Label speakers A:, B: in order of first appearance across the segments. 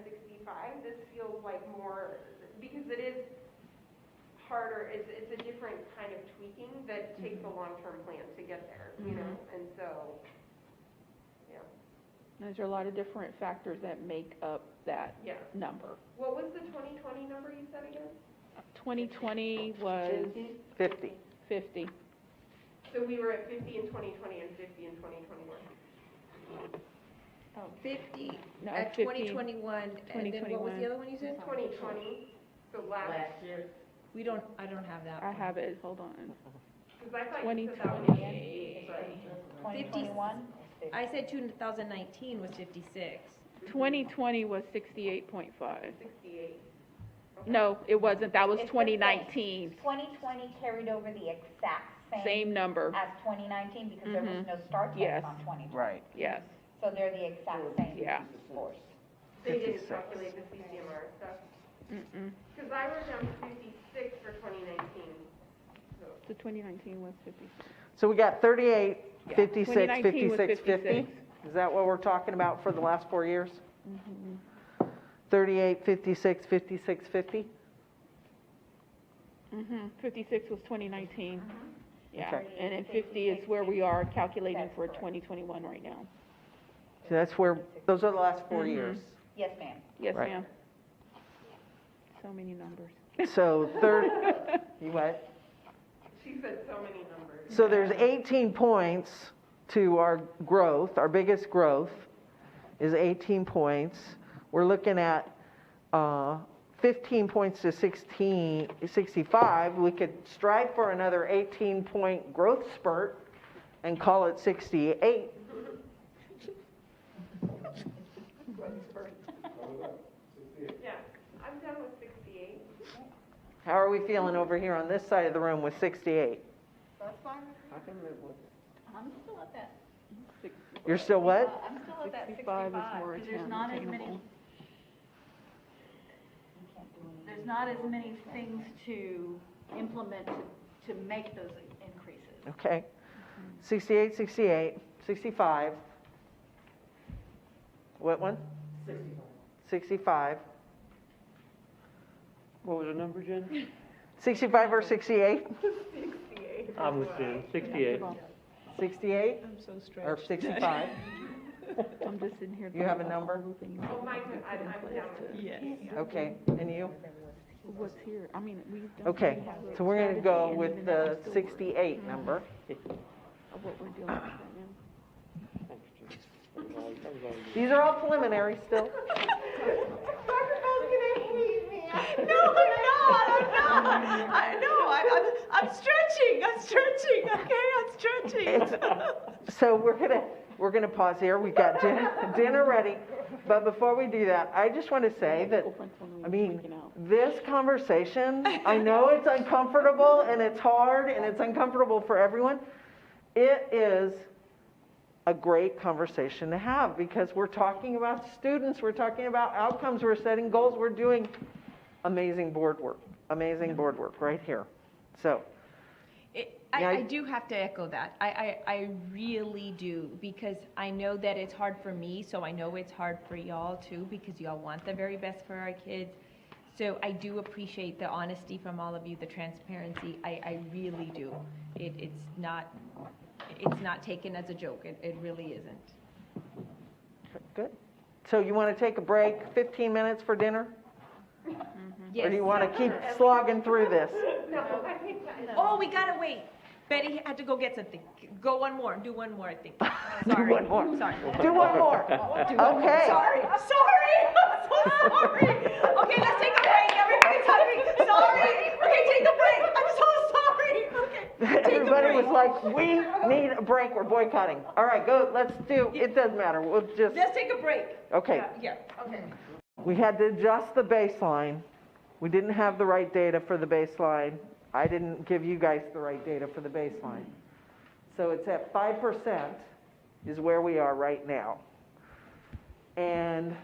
A: 65, this feels like more, because it is harder, it's, it's a different kind of tweaking that takes a long-term plan to get there, you know? And so, yeah,
B: There's a lot of different factors that make up that
A: yeah.
B: number.
A: What was the 2020 number you said again?
B: 2020 was
C: 50.
B: 50.
A: So we were at 50 in 2020 and 50 in 2021.
D: 50
B: No,
E: Uh,
D: at
B: 50.
D: 2021, uh, and then what was
B: 2021.
D: the other one you said?
A: 2020, so last,
F: last year.
D: We don't, I don't have that
B: I
D: one.
B: have it, hold on.
A: because I thought you said that one again.
B: 2020,
D: Fifty-
E: 2021?
D: I said 2019 was 56.
B: 2020 was 68.5.
A: 68. Okay.
B: No, it wasn't, that was
E: It's the same.
B: 2019,
E: 2020 carried over the exact same
B: same number,
E: as 2019 because there was no start
B: Yes.
E: test on 2020.
C: Right.
B: yes,
E: So they're the exact same
B: yeah.
E: force.
A: They didn't
C: 56.
A: calculate the CCMR stuff.
B: Mm-mm.
A: Because I wrote down 56 for 2019. So
B: So 2019 was 56.
C: So we got 38,
B: Yeah.
C: 56,
B: 2019 was
C: 56, 50?
B: 56.
C: Is that what we're talking about for the last four years? 38, 56, 56, 50?
B: Mm-hmm, 56 was 2019.
E: Mm-hmm.
B: Yeah,
C: Okay.
B: and then 50 is where we are calculating
E: That's
B: for
E: correct.
B: 2021 right now.
C: So that's where, those are the last four years.
E: Yes, ma'am.
B: Yes,
C: Right.
B: ma'am. So many numbers.
C: So third, you what?
A: she said so many numbers.
C: So there's 18 points to our growth, our biggest growth is 18 points. We're looking at uh, 15 points to 16, 65. We could strive for another 18-point growth spurt and call it 68.
A: Yeah, I'm done with 68.
C: How are we feeling over here on this side of the room with 68?
E: That's fine.
G: I'm still at that,
C: You're still what?
G: Uh, I'm still at
B: 65
G: that sixty-five,
B: is more
G: because there's not as many,
B: attainable.
G: there's not as many things to implement to- to make those increases.
C: Okay. 68, 68, 65. What one? 65. 65.
H: What was the number, Jen?
C: 65 or 68?
H: I'm with Jen, 68.
B: Well,
C: 68
D: I'm so stressed.
C: or 65?
B: I'm just sitting here.
C: You have
B: thinking
C: a
B: about all
C: number?
B: the things
A: Oh,
B: that
A: mine,
B: we
A: I-
B: put in
A: I'm
B: place
A: down with
B: to-
C: Okay, and you?
B: What's here, I mean, we don't
C: Okay,
B: really have a
C: so we're going to
B: strategy
C: go
B: and
C: with
B: even though
C: the
B: we're still
C: 68 number.
B: working Of what we're dealing with right now.
C: These are all preliminary still.
D: I know, I- I'm, I'm stretching, I'm stretching, okay, I'm stretching.
C: It's- So we're gonna, we're gonna pause here, we've got din- dinner ready, but before we do that, I just wanna say that, I mean, this conversation, I know it's uncomfortable and it's hard and it's uncomfortable for everyone. It is a great conversation to have because we're talking about students, we're talking about outcomes, we're setting goals, we're doing amazing board work, amazing board work right here. So,
D: It,
C: Yeah,
D: I,
C: I-
D: I do have to echo that. I, I, I really do, because I know that it's hard for me, so I know it's hard for y'all too, because y'all want the very best for our kids. So I do appreciate the honesty from all of you, the transparency. I, I really do. It, it's not, it's not taken as a joke. It, it really isn't.
C: Good. So you want to take a break, 15 minutes for dinner? Or do you
D: Yes.
C: want to keep slogging through this?
A: No, I think that is.
D: Oh, we gotta wait. Betty had to go get something. Go one more, do one more, I think.
C: Do
D: Sorry.
C: one more.
D: Sorry.
C: Do one more. Okay.
D: Sorry, I'm sorry, I'm so sorry. Okay, let's take a break, everybody's hungry, sorry. Okay, take a break, I'm so sorry, okay. Take a
C: Everybody was
D: break.
C: like, we need a break, we're boycotting. All right, go, let's do, it doesn't matter, we'll just,
D: Let's take a break.
C: okay.
D: Yeah.
C: We had to adjust the baseline. We didn't have the right data for the baseline. I didn't give you guys the right data for the baseline. So it's at 5% is where we are right now. And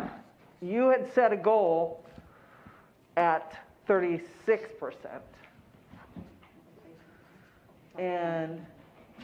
C: you had set a goal at 36%. And